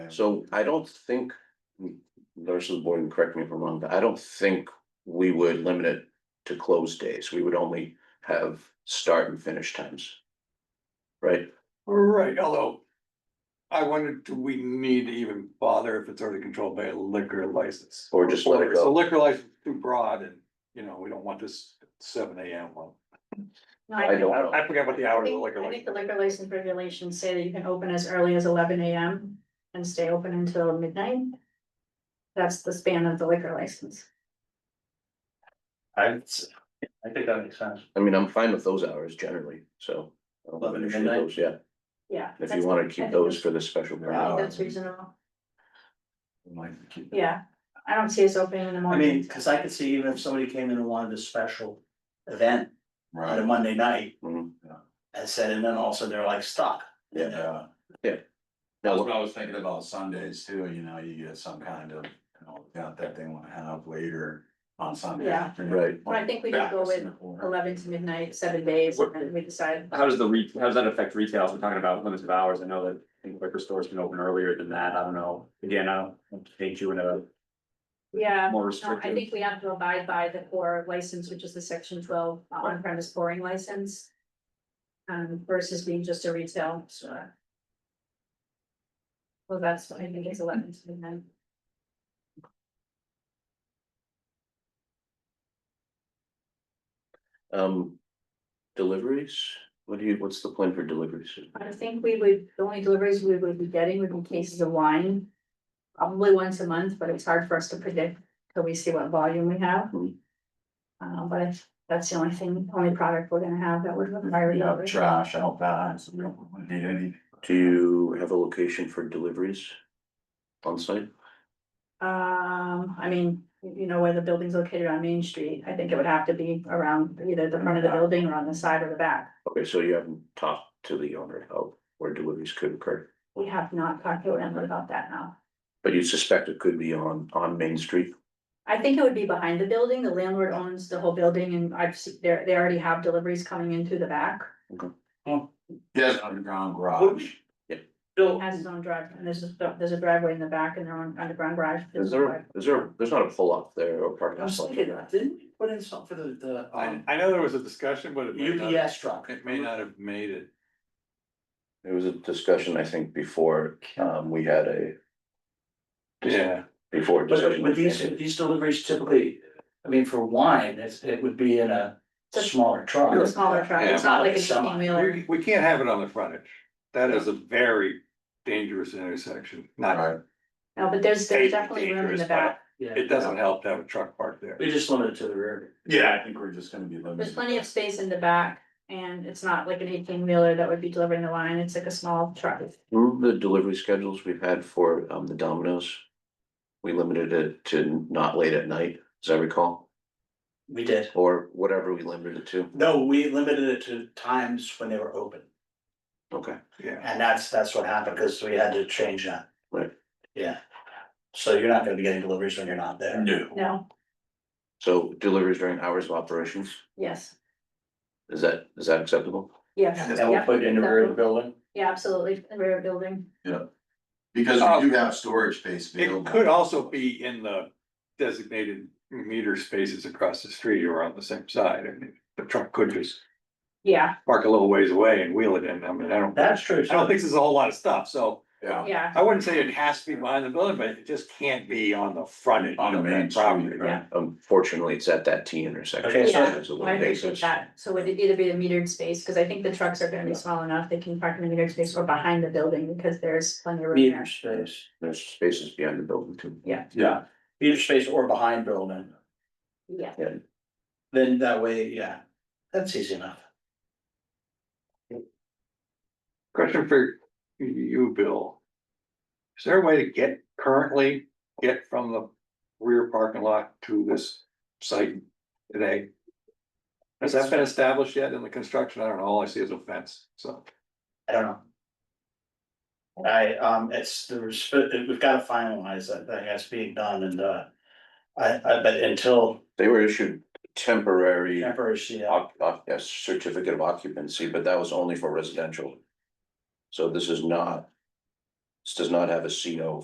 So I don't think, nurses board, and correct me if I'm wrong, but I don't think we would limit it to close days. We would only have start and finish times. Right? Right, although. I wondered, do we need to even bother if it's already controlled by a liquor license? Or just let it Or go. is The liquor license is too broad and, you know, we don't want this seven AM one. No, I think- don't know. I forgot what the I hours of the think, liquor I think the license. liquor license regulations say that you can open as early as eleven AM and stay open until midnight. That's the span of the liquor license. I, I think that makes sense. I mean, I'm fine with those hours generally, so. I don't have an issue with those, Yeah, Yeah. if you that's- wanna I keep think those that's- for the special. I permit. think That's reasonable, yeah. I don't see us opening in the I morning. mean, cause I could see even if somebody came in and wanted a special event on a Right, Monday night. Mhm. Mm-hmm. And said, and then also they're like stuck. yeah. That's Now, what I was thinking about Sundays too, you know, you get some kind of, you know, event that they wanna have later on Sunday Yeah. afternoon. Right. Well, I think we could go with Eleven to midnight, seven days, and then we decide. How does the re, how does that affect retail? We're talking about limits of hours. I know that I think liquor stores can open earlier than that. I don't know. Again, I don't want to paint you in a Yeah, more no, Uh, I restrictive. think we have to abide by the core license, which is the section twelve on premise pouring license. Um, versus being just a retail store. Well, that's what I think is eleven to midnight. Um, deliveries, what do you, what's the plan for deliveries? I think we would, the only deliveries we would be getting would be cases of wine. Probably once a month, but it's hard for us to predict till we see what volume we have. Mhm. Uh, but if- that's the only thing, only product we're gonna have that would require. We have delivery. trash out back, so we don't need any. Do you have a location for deliveries? On site? Um, I mean, you you know where the building's located on Main Street, I think it would have to be around either the front of the building or on the side or the back. Okay, so you haven't talked to the owner of where deliveries could occur, We have not talked to them about that now. but you suspect it could be on, on Main Street? I think it would be behind the building, the landlord owns the whole building and I've seen, they they already have deliveries coming in through the back. Yes, underground garage. He has his own drive, and there's a, there's a driveway in the back and their own underground garage. Is there, is there, there's not a pull-off there or parking? I was lot? thinking, didn't we put in something for the, the, I, um, I know there was a discussion, but it may not, UPS truck? it uh, may not have made it. There was a discussion, I think, before, um, we had a. Yeah, Before. But discussion with was these, ended. these deliveries typically, I mean, for wine, it's, it would be in a Just- smaller truck. A smaller truck, it's not like an eighteen wheeler. we, we can't have it on the frontage. That is a very dangerous intersection, not, Right, No, but there's, there's definitely room in the back. Yeah. it doesn't help to have a truck parked there. We just limit it to the rear. yeah, I think we're just gonna be limited. There's plenty of space in the back and it's not like an eighteen wheeler that would be delivering the wine. It's like a small truck. Remember the delivery schedules we've had for, um, the Domino's? We limited it to not late at night, as I recall, We did. or whatever we limited it to, No, we limited it to times when they were open, okay. Yeah, and that's, that's what happened, because we had to change that. Right. Yeah, so you're not gonna be getting deliveries when you're not there. No. No, So deliveries during hours of operations, yes, is that, is that acceptable? yes, And we'll yeah, put it in the rear of the building. yeah, absolutely, the rear building. Because we do have storage space it available. could also be in the designated meter spaces across the street or on the same side, I mean, the truck could just Yeah, park a little ways away and wheel it in, I mean, I don't, I That's true. don't think there's a whole lot of stuff, so. Yeah. yeah, I wouldn't say it has to be behind the building, but it just can't be on the front end. On the main of that property. street, right? Unfortunately, it's at that T intersection. Okay, so- It's a little I appreciate dangerous. that. So would it either be the metered space, because I think the trucks are gonna be small enough, they can park in the metered space or behind the building because there's plenty of room Meter there. space, There's spaces behind the building too. yeah, meter space or behind building, Yeah, then that way, yeah, that's easy enough. Question for you, Bill. Is there a way to get currently, get from the rear parking lot to this site today? Has that been established yet in the construction? I don't know, all I see is a fence, so. I don't know. I, um, it's, there's, we've gotta finalize that, thing that's being done and, uh. I, I, but until They were issued temporary temporary, yeah, oc- oc- a certificate of occupancy, but that was only for residential. So this is not, this does not have a CO